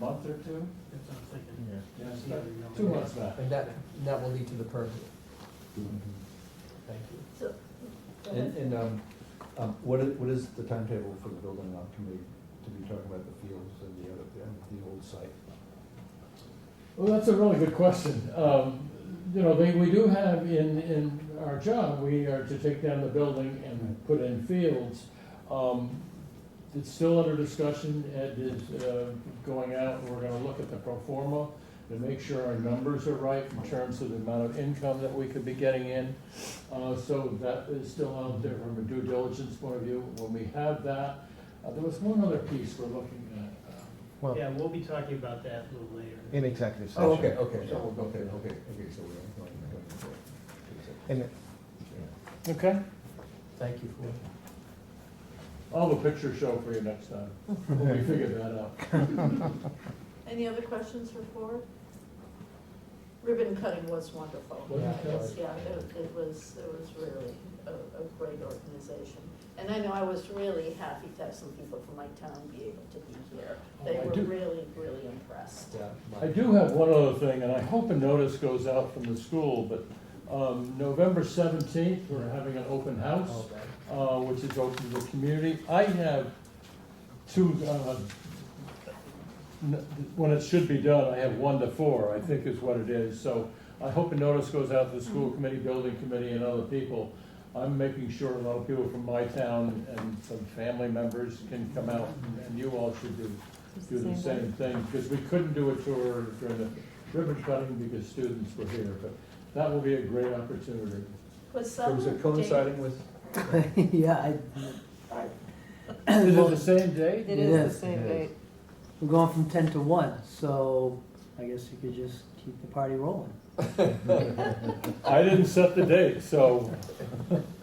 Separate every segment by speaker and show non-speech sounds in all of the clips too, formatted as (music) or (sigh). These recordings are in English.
Speaker 1: month or two?
Speaker 2: That's what I'm thinking.
Speaker 3: Yeah.
Speaker 1: Yes,
Speaker 2: Yeah.
Speaker 1: two months back.
Speaker 4: And that, and that will lead to the permit. Thank you.
Speaker 5: So, go
Speaker 3: And,
Speaker 5: ahead.
Speaker 3: and, um, um, what is, what is the timetable for the building out committee to be talking about the fields and the other, and the old site?
Speaker 1: Well, that's a really good question. Um, you know, they, we do have in, in our job, we are to take down the building and put in fields. Um, it's still under discussion, Ed is, uh, going out, we're gonna look at the pro forma to make sure our numbers are right in terms of the amount of income that we could be getting in. Uh, so that is still out there from a due diligence point of view. When we have that, uh, there was one other piece we're looking at. uh,
Speaker 6: Well,
Speaker 2: Yeah, we'll be talking about that a little later.
Speaker 6: in executive session.
Speaker 3: Oh, okay, okay, so, okay, okay, okay, so we're not going to.
Speaker 6: And
Speaker 1: Okay.
Speaker 4: Thank you for,
Speaker 1: I'll have a picture show for you next time, when we figure that out.
Speaker 5: Any other questions for Ford? Ribbon cutting was wonderful.
Speaker 1: Wasn't
Speaker 5: Yeah, it was-
Speaker 1: it?
Speaker 5: Yeah, it, it was, it was really a, a great organization. And I know I was really happy to have some people from my town be able to be here.
Speaker 1: Oh,
Speaker 5: They
Speaker 1: I
Speaker 5: were
Speaker 1: do-
Speaker 5: really, really impressed.
Speaker 4: yeah.
Speaker 1: I do have one other thing, and I hope a notice goes out from the school, but um, November seventeenth, we're having an open house,
Speaker 4: Okay.
Speaker 1: uh, which is open to the community. I have two, uh, n- when it should be done, I have one to four, I think is what it is. So I hope a notice goes out to the school committee, building committee, and other people. I'm making sure a lot of people from my town and some family members can come out, and you all should do do the same thing, because we couldn't do a tour during the ribbon cutting because students were here, but that will be a great opportunity.
Speaker 5: Was some
Speaker 3: Was it
Speaker 5: date-
Speaker 3: coinciding with?
Speaker 7: (laughs) Yeah, I,
Speaker 1: Is it the same day?
Speaker 8: It is
Speaker 7: Yes,
Speaker 8: the
Speaker 6: it
Speaker 8: same
Speaker 6: is.
Speaker 8: date.
Speaker 7: we're going from ten to one, so I guess you could just keep the party rolling.
Speaker 1: I didn't set the date, so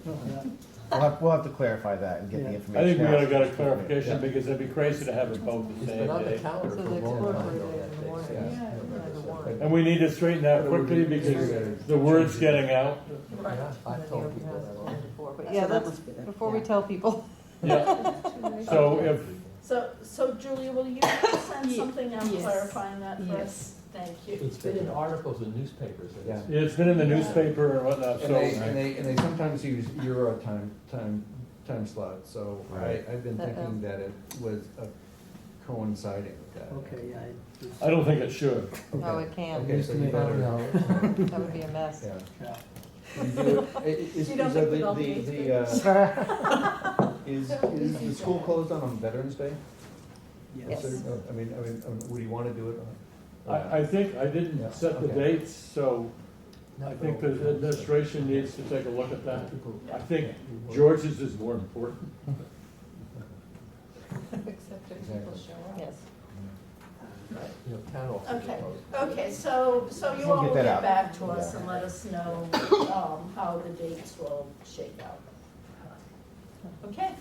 Speaker 6: we'll have, we'll have to clarify that and get the
Speaker 7: Yeah. I
Speaker 1: I
Speaker 6: information
Speaker 1: think we
Speaker 6: out.
Speaker 1: ought to get a clarification, because it'd be crazy to have it both the
Speaker 4: It's
Speaker 1: same
Speaker 4: been on the
Speaker 1: day.
Speaker 4: calendar for
Speaker 8: So
Speaker 4: a
Speaker 8: that's
Speaker 4: long time.
Speaker 8: incorporated
Speaker 4: though,
Speaker 8: in
Speaker 4: that
Speaker 8: the
Speaker 4: date.
Speaker 8: morning.
Speaker 4: Yeah.
Speaker 8: Yeah, it's by the warning.
Speaker 1: And we need to straighten that quickly, because
Speaker 4: Yeah,
Speaker 1: the word's getting out.
Speaker 5: Right.
Speaker 4: I've told people that.
Speaker 8: Yeah,
Speaker 4: already.
Speaker 8: before, But
Speaker 7: That's
Speaker 8: yeah,
Speaker 7: what that
Speaker 8: that's
Speaker 7: must be then.
Speaker 8: before
Speaker 7: Yeah.
Speaker 8: we tell people. (laughs)
Speaker 1: Yeah, so if,
Speaker 5: So, so Julia, will you send
Speaker 8: Ye-
Speaker 5: something out
Speaker 8: yes.
Speaker 5: clarifying that for us?
Speaker 8: Yes.
Speaker 5: Thank you.
Speaker 4: It's been in articles in newspapers, and it's,
Speaker 1: it's been in the newspaper and whatnot,
Speaker 3: And they, and
Speaker 1: so.
Speaker 3: they, and they sometimes use Euro time, time, time slot, so I,
Speaker 6: Right.
Speaker 3: I've been
Speaker 8: Uh-oh.
Speaker 3: thinking that it was uh, coinciding with that.
Speaker 7: Okay, yeah. it's-
Speaker 1: I don't think it should.
Speaker 8: No, Oh, it can't.
Speaker 3: Okay, so you better,
Speaker 8: That would be a mess.
Speaker 3: (laughs) yeah.
Speaker 7: Yeah.
Speaker 3: You do it- i- i- Is,
Speaker 5: (laughs) You
Speaker 3: is
Speaker 5: don't
Speaker 3: uh,
Speaker 5: think we'd
Speaker 3: the,
Speaker 5: all be
Speaker 3: the, the,
Speaker 5: newspapers?
Speaker 6: (laughs)
Speaker 3: uh, (laughs) is, is the school closed on on Veterans Day?
Speaker 7: Yes.
Speaker 3: Is there- I mean, I mean, um, would you wanna do it Uh, on?
Speaker 1: I, I think I
Speaker 3: Yeah,
Speaker 1: didn't set the
Speaker 3: okay.
Speaker 1: dates, so I think the administration needs to take a look at that. I think George's is more important.
Speaker 8: Except if people show up. Yes.
Speaker 4: you know, town offices.
Speaker 5: Okay.
Speaker 4: closed.
Speaker 5: Okay, so, so you
Speaker 6: We'll
Speaker 5: all
Speaker 6: get
Speaker 5: will
Speaker 6: that
Speaker 5: get
Speaker 6: out.
Speaker 5: back to us
Speaker 6: Yeah.
Speaker 5: and let us know, um, how the dates will shake out. Okay,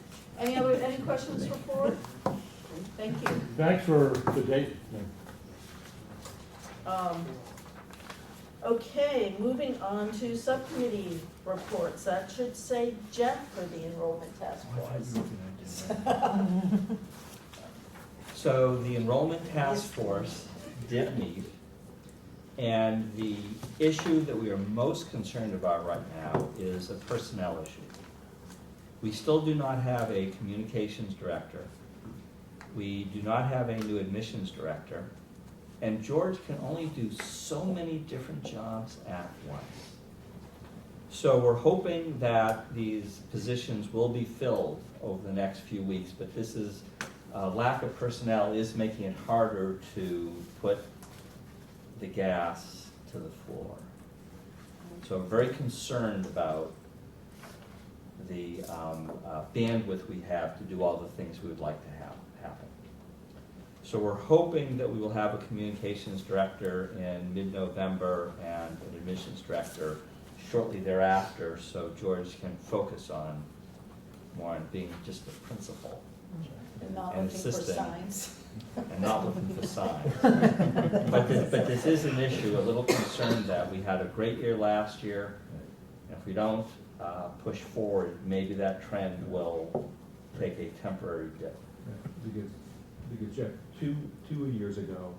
Speaker 5: any other, any questions for Ford? Thank you.
Speaker 1: Thanks for the date. thing.
Speaker 5: Um, Okay, moving on to subcommittee reports, that should say Jeff for the enrollment task force.
Speaker 9: So the enrollment task force did meet, and the issue that we are most concerned about right now is a personnel issue. We still do not have a communications director. We do not have a new admissions director. And George can only do so many different jobs at once. So we're hoping that these positions will be filled over the next few weeks, but this is uh, lack of personnel is making it harder to put the gas to the floor. So I'm very concerned about the um, uh, bandwidth we have to do all the things we would like to have happen. So we're hoping that we will have a communications director in mid-November and an admissions director shortly thereafter, so George can focus on more on being just the principal
Speaker 5: And not
Speaker 9: And
Speaker 5: looking for
Speaker 9: assisting.
Speaker 5: signs.
Speaker 9: and not looking for signs. But this, but this is an issue, a little concerned that we had a great year last year. and If we don't uh, push forward, maybe that trend will take a temporary dip.
Speaker 3: Because, because Jeff, two, two years ago,